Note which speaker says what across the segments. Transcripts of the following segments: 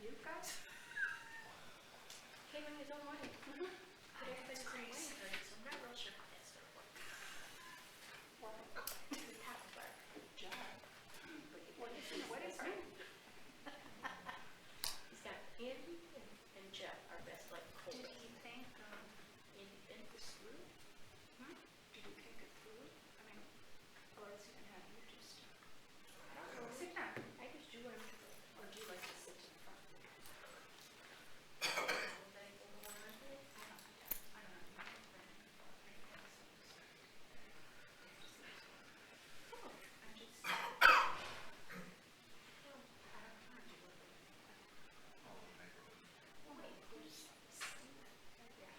Speaker 1: You guys? Came in his own way. Put everything his own way.
Speaker 2: I'm not real sure how that's gonna work.
Speaker 1: Well,
Speaker 2: It's a tough work.
Speaker 1: John. What is, what is new?
Speaker 2: He's got Andy and, and Jeff are best like
Speaker 1: Did
Speaker 2: Colby.
Speaker 1: he think, um,
Speaker 2: And, and this room,
Speaker 1: hmm? Did he think it through? I mean, or is he gonna have you just? I don't know. Oh, Sit down.
Speaker 2: I just do what I'm doing.
Speaker 1: Or do you like to sit in front?
Speaker 2: Anybody over one of them?
Speaker 1: I don't, I don't know. Oh, I'm just. I don't, I don't know. Do what we- Oh, wait, who's? Yeah.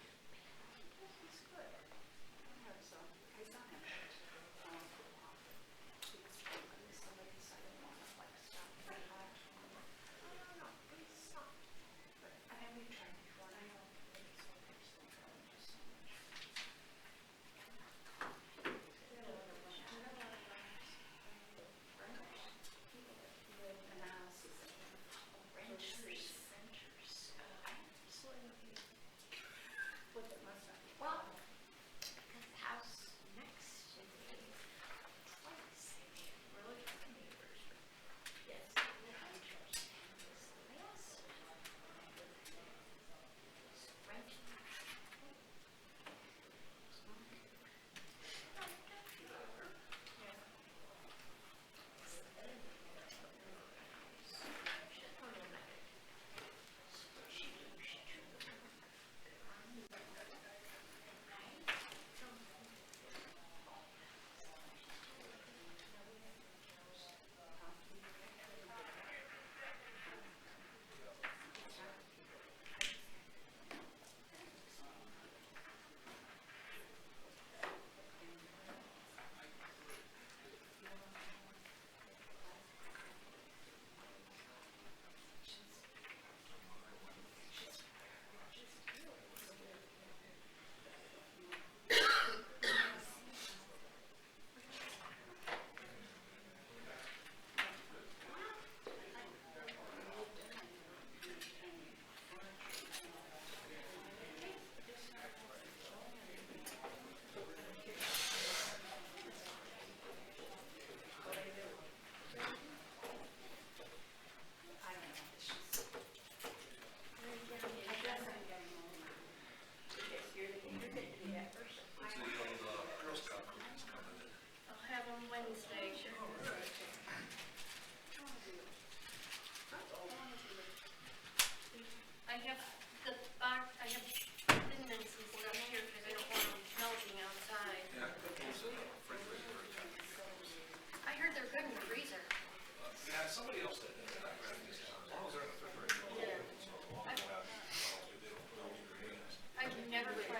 Speaker 1: He's good. I hope so. I saw him. um, He was talking to somebody, so I didn't want to like stop and watch. I don't know, he's soft. But I have been trying before, and I know it's so much, so I'm just so much. There are a lot of women- there are a lot of women, um, renters, people that live in houses that have
Speaker 2: Renters,
Speaker 1: renters.
Speaker 2: renters. Uh, I have to sort of,
Speaker 1: What it must have.
Speaker 2: well, because the house next to me, twice, I mean, we're looking at neighbors. Yes, the renters. And this last one, was renting.
Speaker 1: I don't know, it's just.
Speaker 2: Yeah,
Speaker 1: I guess I'm getting old.
Speaker 2: You're the, you're the, you're that person. I'll have them Wednesday, sure. I have the box, I have tendons and stuff here because I don't want them melting outside. I heard they're good in the freezer.
Speaker 3: Yeah, somebody else did that, I read it just, as long as they're in the refrigerator.
Speaker 2: Yeah. I-
Speaker 3: They don't- they don't-
Speaker 2: I can never get